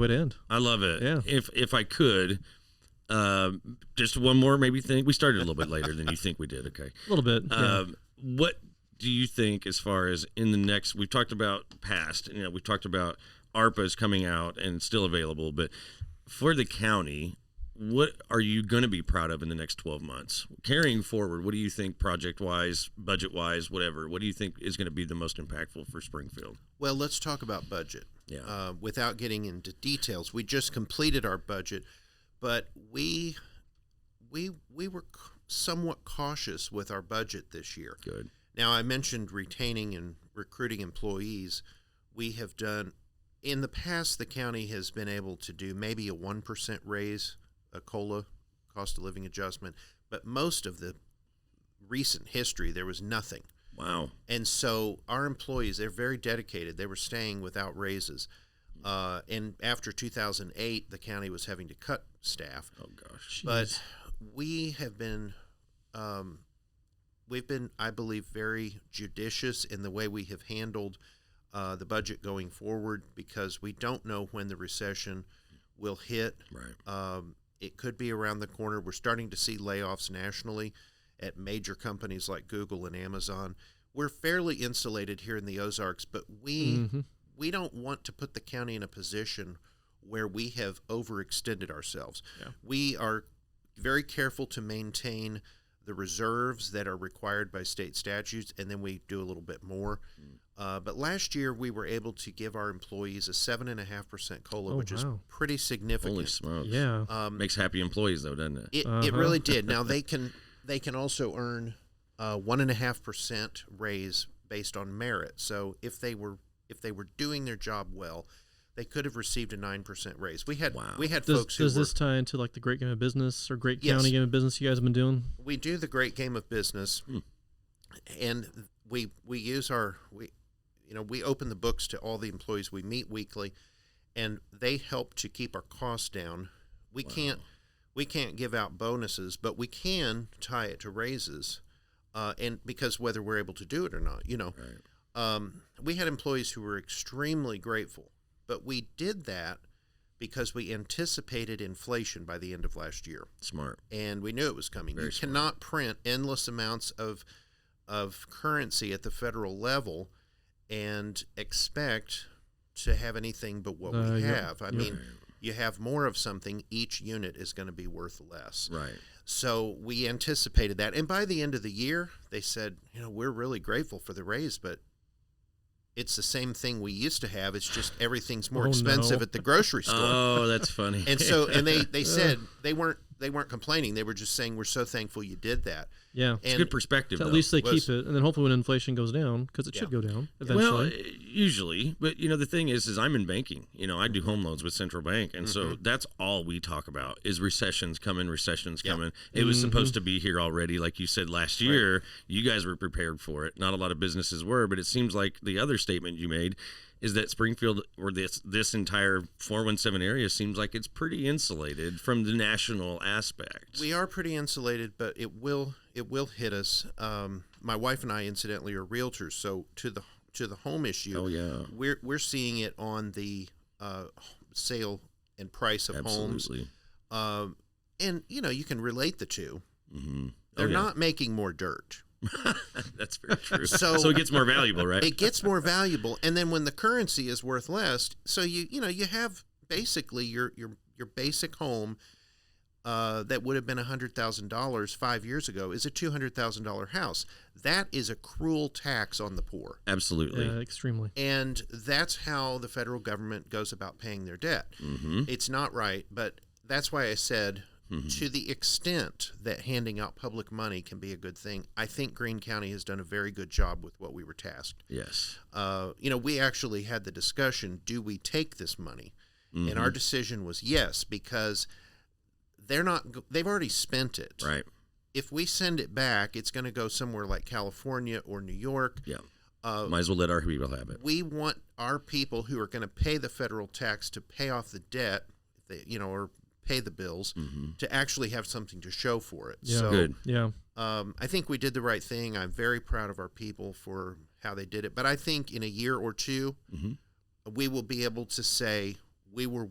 way to end. I love it. Yeah. If if I could, um, just one more maybe thing. We started a little bit later than you think we did. Okay. A little bit. yeah. Um, what do you think as far as in the next? We've talked about past. You know, we've talked about ARPA's coming out and still available, but for the county. What are you going to be proud of in the next 12 months? Carrying forward, what do you think project wise, budget wise, whatever, what do you think is going to be the most impactful for Springfield? Well, let's talk about budget. Yeah. Uh, without getting into details, we just completed our budget, but we we we were c- somewhat cautious with our budget this year. Good. Now, I mentioned retaining and recruiting employees. We have done in the past. The county has been able to do maybe a one percent raise, a cola, cost of living adjustment, but most of the recent history there was nothing. Wow. And so our employees, they're very dedicated. They were staying without raises. Uh, and after 2008, the county was having to cut staff. Oh, gosh. But we have been, um, we've been, I believe, very judicious in the way we have handled uh, the budget going forward because we don't know when the recession will hit. Right. Um, it could be around the corner. We're starting to see layoffs nationally at major companies like Google and Amazon. We're fairly insulated here in the Ozarks, but we Mm. Mm-hmm. we don't want to put the county in a position where we have overextended ourselves. We are very careful to maintain the reserves that are required by state statutes, and then we do a little bit more. Mm. Uh, but last year, we were able to give our employees a seven and a half percent cola, Oh, which is wow. pretty significant. Holy smokes. yeah. Um, Makes happy employees, though, doesn't it? it, it Uh-huh. really did. Now they can they can also earn uh, one and a half percent raise based on merit. So if they were if they were doing their job well, they could have received a nine percent raise. We had Wow. we had does folks who does were, this tie into like the Great Game of Business or Great Yes. County Game of Business you guys have been doing? we do the great game of business, and we we use our we you know we open the books to all the employees we meet weekly, and they help to keep our costs down. We can't we can't give out bonuses, but we can tie it to raises, uh, and because whether we're able to do it or not, you know, um, we had employees who were extremely grateful, but we did that because we anticipated inflation by the end of last year Smart. and we knew it was coming. Very you smart. cannot print endless amounts of of currency at the federal level and expect to have anything but what Uh, we yep, have. I yep. mean, you have more of something, each unit is going to be worth less. Right. So we anticipated that. And by the end of the year, they said, you know, we're really grateful for the raise, but it's the same thing we used to have. It's just everything's more Oh, no. expensive at the grocery store Oh, that's funny. and so and they they said they weren't they weren't complaining they were just saying we're so thankful you did that Yeah. it's and good perspective. So at though. least they keep listen. it, and then hopefully when inflation goes down, because it should go Yeah. down well, uh, eventually. usually, but you know the thing is, is I'm in banking. You know, I do home loans with Central Bank, and so Mm-hmm. that's all we talk about is recessions coming, recessions Yeah. Mm-hmm. coming. It was supposed to be here already, like you said last year. You guys were prepared for it. Not a lot of businesses were, but it seems like the other statement you made is that Springfield or this this entire 417 area seems like it's pretty insulated from the national aspect. we are pretty insulated but it will it will hit us um, my wife and i incidentally are realtors so to the to the home issue oh yeah, we're we're seeing it on the uh, sale and price of homes absolutely. um, and you know you can relate the two Mm-hmm. they're not making more dirt That's very true. So, So- it gets more valuable, right? it gets more valuable and then when the currency is worth less so you you know you have basically your your your basic home uh, that would have been $100,000 five years ago is a $200,000 house. That is a cruel tax on the poor. Absolutely. Uh, yeah, extremely. And that's how the federal government goes about paying their debt. Mm-hmm. It's not right, but that's why I said to the extent that handing out public money can be a good thing, I think Greene County has done a very good job with what we were tasked Yes. uh, you know, we actually had the discussion do we take this money? And Mm-hmm. our decision was yes, because they're not, go- they've already spent it. Right. If we send it back, it's going to go somewhere like California or New York. Yeah. Uh, Might as well let our people have it. we want our people who are going to pay the federal tax to pay off the debt, if they- you know, or pay the bills Mm-hmm. to actually have something to show for it. Yeah. So, Good. Yeah. um, I think we did the right thing. I'm very proud of our people for how Mm-hmm. they did it. But I think in a year or 2 we will be able to say we were